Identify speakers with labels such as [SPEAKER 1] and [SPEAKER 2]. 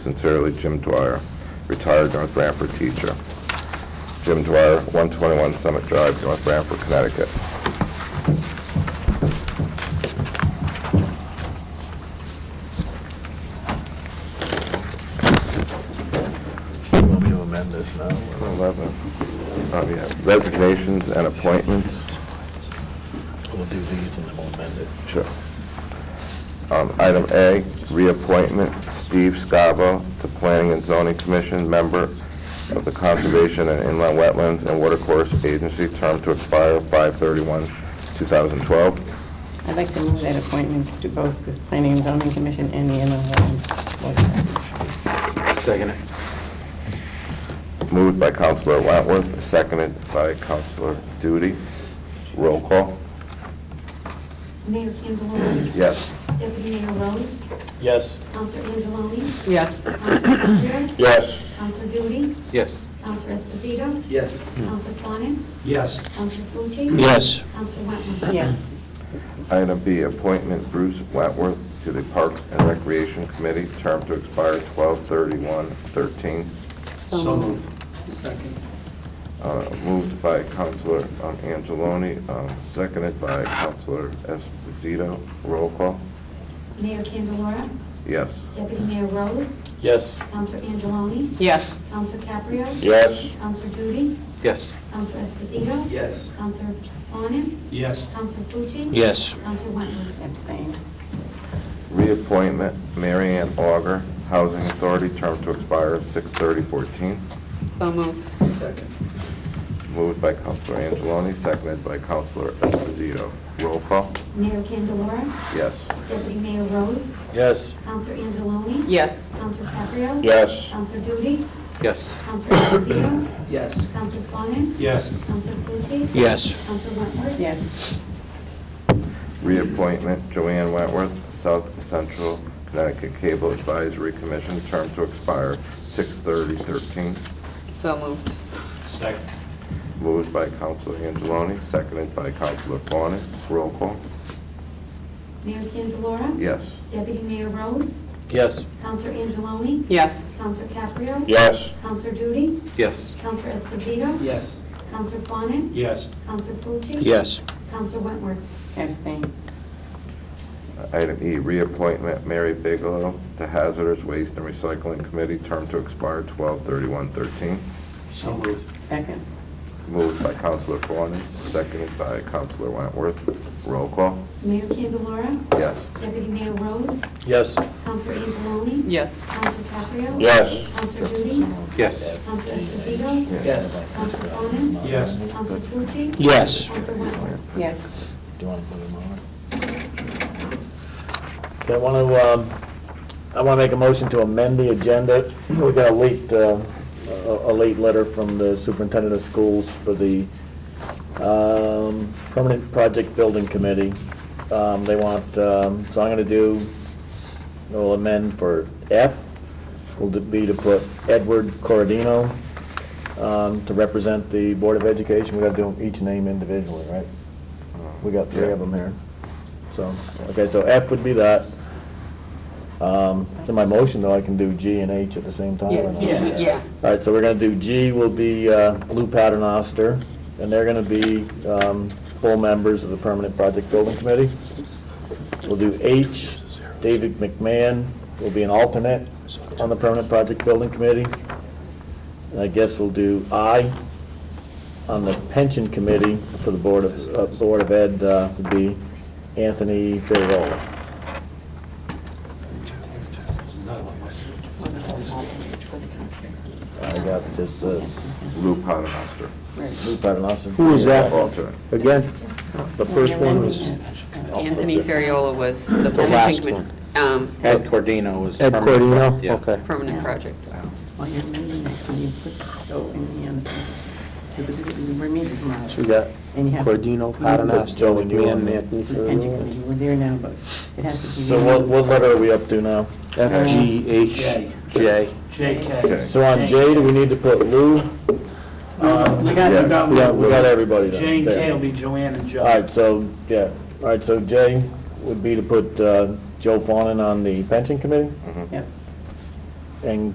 [SPEAKER 1] Sincerely, Jim Dwyer, retired North Branford teacher. Jim Dwyer, 121 Summit Drive, North Branford, Connecticut.
[SPEAKER 2] You want me to amend this now?
[SPEAKER 1] 11. Oh, yeah. Resignations and appointments.
[SPEAKER 2] We'll do these and then we'll amend it.
[SPEAKER 1] Sure. Um, Item A, reappointment Steve Scavo to Planning and Zoning Commission, member of the Conservation and Inland Wetlands and Watercourse Agency, term to expire 5/31/2012.
[SPEAKER 3] I'd like to move that appointment to both the Planning and Zoning Commission and the Inland Wetlands Board.
[SPEAKER 4] Second.
[SPEAKER 1] Moved by Counselor Wentworth, seconded by Counselor Duty. Roll call.
[SPEAKER 5] Mayor Candelora.
[SPEAKER 1] Yes.
[SPEAKER 5] Deputy Mayor Rose.
[SPEAKER 4] Yes.
[SPEAKER 5] Counselor Angeloni.
[SPEAKER 3] Yes.
[SPEAKER 5] Counselor Caprio.
[SPEAKER 1] Yes.
[SPEAKER 5] Counselor Duty.
[SPEAKER 4] Yes.
[SPEAKER 5] Counselor Esposito.
[SPEAKER 4] Yes.
[SPEAKER 5] Counselor Fawnin.
[SPEAKER 4] Yes.
[SPEAKER 5] Counselor Fuji.
[SPEAKER 4] Yes.
[SPEAKER 5] Counselor Wentworth.
[SPEAKER 3] Yes.
[SPEAKER 1] Item B, appointment Bruce Wentworth to the Parks and Recreation Committee, term to expire 12/31/13.
[SPEAKER 4] So moved. Second.
[SPEAKER 1] Uh, Moved by Counselor um, Angeloni, um, seconded by Counselor Esposito. Roll call.
[SPEAKER 5] Mayor Candelora.
[SPEAKER 1] Yes.
[SPEAKER 5] Deputy Mayor Rose.
[SPEAKER 4] Yes.
[SPEAKER 5] Counselor Angeloni.
[SPEAKER 3] Yes.
[SPEAKER 5] Counselor Caprio.
[SPEAKER 1] Yes.
[SPEAKER 5] Counselor Duty.
[SPEAKER 4] Yes.
[SPEAKER 5] Counselor Esposito.
[SPEAKER 4] Yes.
[SPEAKER 5] Counselor Fawnin.
[SPEAKER 4] Yes.
[SPEAKER 5] Counselor Fuji.
[SPEAKER 4] Yes.
[SPEAKER 5] Counselor Wentworth.
[SPEAKER 3] Abstain.
[SPEAKER 1] Reappointment Mary Ann Auger, Housing Authority, term to expire 6/30/14.
[SPEAKER 3] So moved.
[SPEAKER 4] Second.
[SPEAKER 1] Moved by Counselor Angeloni, seconded by Counselor Esposito. Roll call?
[SPEAKER 5] Mayor Candelora.
[SPEAKER 1] Yes.
[SPEAKER 5] Deputy Mayor Rose.
[SPEAKER 4] Yes.
[SPEAKER 5] Counselor Angeloni.
[SPEAKER 3] Yes.
[SPEAKER 5] Counselor Caprio.
[SPEAKER 1] Yes.
[SPEAKER 5] Counselor Duty.
[SPEAKER 4] Yes.
[SPEAKER 5] Counselor Esposito.
[SPEAKER 4] Yes.
[SPEAKER 5] Counselor Fawnin.
[SPEAKER 4] Yes.
[SPEAKER 5] Counselor Fuji.
[SPEAKER 4] Yes.
[SPEAKER 5] Counselor Wentworth.
[SPEAKER 3] Yes.
[SPEAKER 1] Reappointment Joanne Wentworth, South Central Connecticut Cable Advisory Commission, term to expire 6/30/13.
[SPEAKER 3] So moved.
[SPEAKER 4] Second.
[SPEAKER 1] Moved by Counselor Angeloni, seconded by Counselor Fawnin. Roll call?
[SPEAKER 5] Mayor Candelora.
[SPEAKER 1] Yes.
[SPEAKER 5] Deputy Mayor Rose.
[SPEAKER 4] Yes.
[SPEAKER 5] Counselor Angeloni.
[SPEAKER 3] Yes.
[SPEAKER 5] Counselor Caprio.
[SPEAKER 1] Yes.
[SPEAKER 5] Counselor Duty.
[SPEAKER 4] Yes.
[SPEAKER 5] Counselor Esposito.
[SPEAKER 4] Yes.
[SPEAKER 5] Counselor Fawnin.
[SPEAKER 4] Yes.
[SPEAKER 5] Counselor Fuji.
[SPEAKER 4] Yes.
[SPEAKER 5] Counselor Wentworth.
[SPEAKER 3] Abstain.
[SPEAKER 1] Item E, reappointment Mary Bigelow to Hazardous Waste and Recycling Committee, term to expire 12/31/13.
[SPEAKER 4] So moved.
[SPEAKER 3] Second.
[SPEAKER 1] Moved by Counselor Fawnin, seconded by Counselor Wentworth. Roll call?
[SPEAKER 5] Mayor Candelora.
[SPEAKER 1] Yes.
[SPEAKER 5] Deputy Mayor Rose.
[SPEAKER 4] Yes.
[SPEAKER 5] Counselor Angeloni.
[SPEAKER 3] Yes.
[SPEAKER 5] Counselor Caprio.
[SPEAKER 1] Yes.
[SPEAKER 5] Counselor Duty.
[SPEAKER 4] Yes.
[SPEAKER 5] Counselor Esposito.
[SPEAKER 4] Yes.
[SPEAKER 5] Counselor Fawnin.
[SPEAKER 4] Yes.
[SPEAKER 5] Counselor Fuji.
[SPEAKER 4] Yes.
[SPEAKER 5] Counselor Wentworth.
[SPEAKER 3] Yes.
[SPEAKER 2] Do you want to put them on? Okay, I want to, um, I want to make a motion to amend the agenda. We got a late, uh, a a late letter from the superintendent of schools for the um, permanent project building committee. Um, They want, um, so I'm going to do, we'll amend for F, will be to put Edward Corradino um, to represent the Board of Education. We got to do each name individually, right? We got three of them here. So, okay, so F would be that. Um, In my motion, though, I can do G and H at the same time. or not?
[SPEAKER 3] Yeah.
[SPEAKER 2] All right, so we're going to do G will be uh, Lou Paternoster, and they're going to be um, full members of the Permanent Project Building Committee. We'll do H, David McMahon will be an alternate on the Permanent Project Building Committee. And I guess we'll do I on the Pension Committee for the Board of, uh, Board of Ed uh, would be Anthony Fioravalla. I got this uh,
[SPEAKER 1] Lou Paternoster.
[SPEAKER 2] Lou Paternoster.
[SPEAKER 6] Who is that?
[SPEAKER 1] Alternate.
[SPEAKER 6] Again, the first one was
[SPEAKER 7] Anthony Ferriola was the
[SPEAKER 6] last
[SPEAKER 7] planning commi-
[SPEAKER 6] one.
[SPEAKER 7] um,
[SPEAKER 4] Ed Cordino was.
[SPEAKER 6] Ed
[SPEAKER 4] permanent.
[SPEAKER 6] Cordino?
[SPEAKER 4] Yeah.
[SPEAKER 6] Okay.
[SPEAKER 7] permanent project.
[SPEAKER 3] While you're amending that, can you put Joe in the end? Because we're meeting tomorrow.
[SPEAKER 6] So we got
[SPEAKER 3] And you have-
[SPEAKER 6] Cordino, Paternoster,
[SPEAKER 2] Mm-hmm. Joey Newell.
[SPEAKER 6] McMahon, and Anthony
[SPEAKER 3] The pension
[SPEAKER 6] Ferriola.
[SPEAKER 3] committee, we're there now, but it has to be.
[SPEAKER 2] So what, what letter are we up to now?
[SPEAKER 6] F, G, H,
[SPEAKER 4] J.
[SPEAKER 6] J.
[SPEAKER 1] Okay.
[SPEAKER 4] JK.
[SPEAKER 2] So on J, do we need to put Lou?
[SPEAKER 4] Uh,
[SPEAKER 8] We got,
[SPEAKER 1] Yeah.
[SPEAKER 8] we got
[SPEAKER 2] We got, we got
[SPEAKER 8] Lou.
[SPEAKER 2] everybody then.
[SPEAKER 8] Jane
[SPEAKER 2] There.
[SPEAKER 8] K will be Joanne and
[SPEAKER 2] All
[SPEAKER 8] Joe.
[SPEAKER 2] right, so, yeah, all right, so J would be to put uh, Joe Fawnin on the pension committee?
[SPEAKER 3] Yep.
[SPEAKER 2] and